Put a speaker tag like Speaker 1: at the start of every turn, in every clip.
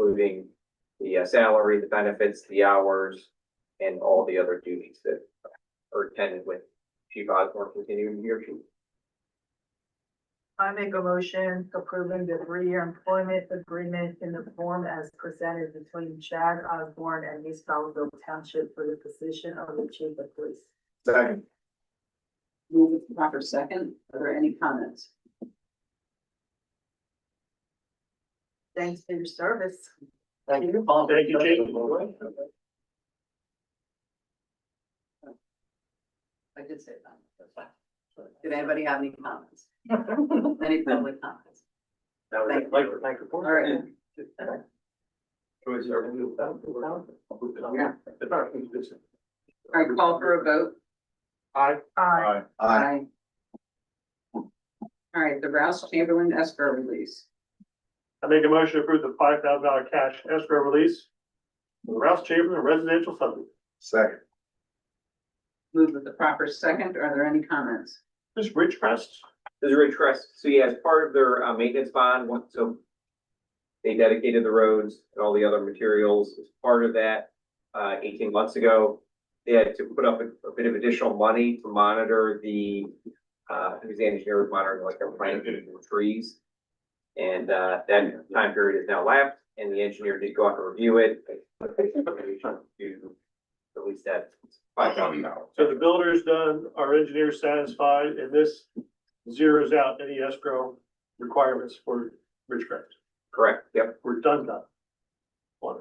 Speaker 1: including the uh, salary, the benefits, the hours, and all the other duties that are attended with Chief Osborne continuing here.
Speaker 2: I make a motion approving the three-year employment agreement in the form as presented between Chad Osborne and East Belleville Township for the position of the chief of police.
Speaker 1: Second.
Speaker 3: Move with the proper second. Are there any comments?
Speaker 2: Thanks for your service.
Speaker 3: Thank you. Paul.
Speaker 4: Thank you, Jake.
Speaker 3: I did say that. Did anybody have any comments? Any public comments?
Speaker 1: That was
Speaker 3: Thank
Speaker 1: it. Mike, Mike, report.
Speaker 3: All right.
Speaker 1: Who is serving you?
Speaker 3: Yeah. All right, call for a vote.
Speaker 1: Aye.
Speaker 2: Uh,
Speaker 3: Aye. All right, the Rouse Chamberlain escrow release.
Speaker 4: I make a motion to approve the five thousand dollar cash escrow release. for the Rouse Chamberlain residential subdivision.
Speaker 5: Second.
Speaker 3: Move with the proper second. Are there any comments?
Speaker 4: This Ridgecrest,
Speaker 1: This is Ridge Crest. So yeah, as part of their uh, maintenance bond, once, so they dedicated the roads and all the other materials as part of that, uh, eighteen months ago. They had to put up a, a bit of additional money to monitor the, uh, who's the engineer was monitoring like their planting of trees. And, uh, that time period is now lapsed and the engineer did go out and review it. To release that five thousand dollars.
Speaker 4: so the builder's done, our engineer's satisfied, and this zeroes out any escrow requirements for Ridgecrest.
Speaker 1: Correct, yep.
Speaker 4: We're done done. One.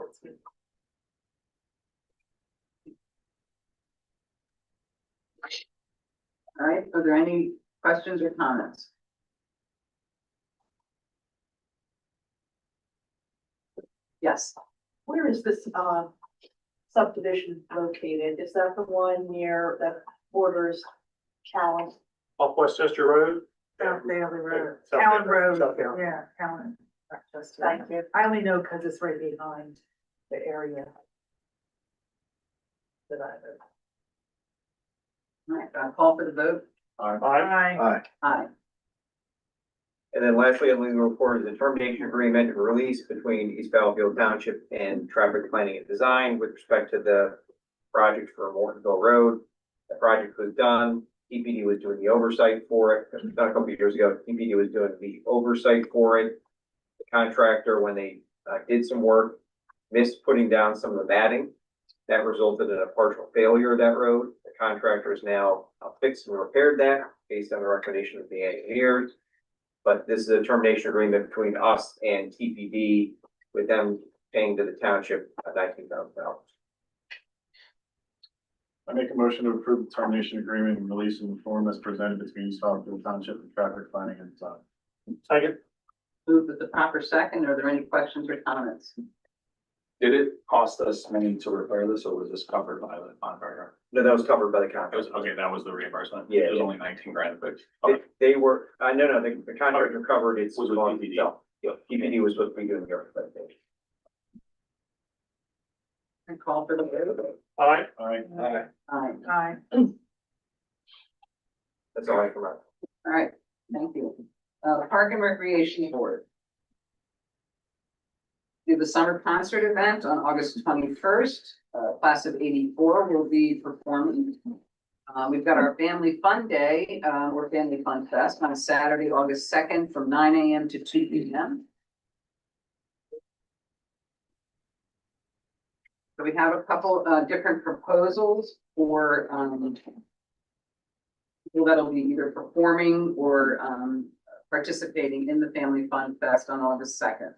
Speaker 3: All right, are there any questions or comments? Yes.
Speaker 2: where is this, uh, subdivision located? Is that the one near that borders Cal?
Speaker 4: Off Westchester Road.
Speaker 2: South Bailey Road.
Speaker 4: South
Speaker 2: Callan
Speaker 4: Bailey,
Speaker 2: Road,
Speaker 4: South Bailey.
Speaker 2: yeah, Callan. Thank you. I only know because it's right behind the area. That I live.
Speaker 3: All right, I'll call for the vote.
Speaker 4: Aye.
Speaker 5: Aye.
Speaker 3: Aye.
Speaker 1: And then lastly, I'm leaving a report is the termination agreement and release between East Battlefield Township and Traffic Planning and Design with respect to the project for Mortonville Road. The project was done, EPD was doing the oversight for it, It was done a couple of years ago, EPD was doing the oversight for it. The contractor, when they uh, did some work, missed putting down some of the matting. That resulted in a partial failure of that road. The contractor is now uh, fixed and repaired that based on the recommendation of the engineers. But this is a termination agreement between us and TPD with them paying to the township nineteen thousand dollars.
Speaker 6: I make a motion to approve the termination agreement and release in the form as presented between East Falkfield Township and Traffic Planning and Design.
Speaker 4: Second,
Speaker 3: Moved with the proper second. Are there any questions or comments?
Speaker 7: Did it cost us money to repair this or was this covered by the contractor?
Speaker 1: No, that was covered by the
Speaker 7: It was,
Speaker 1: contract.
Speaker 7: okay, that was the reimbursement.
Speaker 1: Yeah,
Speaker 7: It was
Speaker 1: yeah.
Speaker 7: only nineteen grand, but
Speaker 1: They, they were, uh, no, no, the, the contractor covered it's.
Speaker 7: Was with
Speaker 1: on-
Speaker 7: TPD.
Speaker 1: no, Yeah, TPD was supposed to be doing the everything.
Speaker 3: And call for the vote.
Speaker 4: aye.
Speaker 6: Aye.
Speaker 3: Aye.
Speaker 2: Aye.
Speaker 1: That's all I can remember.
Speaker 3: All right, thank you. Uh, Park and Recreation Board. Do the summer concert event on August twenty-first, uh, class of eighty-four will be performing. Uh, we've got our Family Fun Day, uh, or Family Fun Fest on Saturday, August second, from nine AM to two PM. So we have a couple, uh, different proposals for, um, people that'll be either performing or um participating in the Family Fun Fest on August second.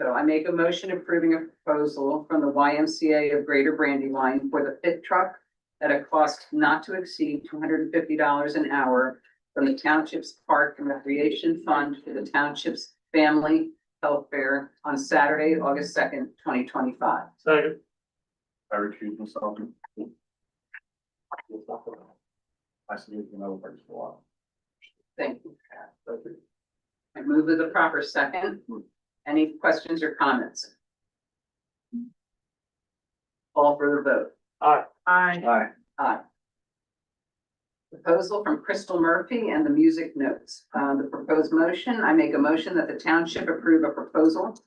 Speaker 3: So I make a motion approving a proposal from the YMCA of Greater Brandywine for the pit truck at a cost not to exceed two hundred and fifty dollars an hour from the township's Park and Recreation Fund for the township's Family Health Fair on Saturday, August second, twenty twenty-five.
Speaker 4: Second,
Speaker 6: I recuse myself. I see you know, first of all.
Speaker 3: Thank you. I move to the proper second. Any questions or comments? Call for the vote.
Speaker 4: aye.
Speaker 2: Aye.
Speaker 5: Aye.
Speaker 3: Aye. Proposal from Crystal Murphy and the Music Notes. Uh, the proposed motion, I make a motion that the township approve a proposal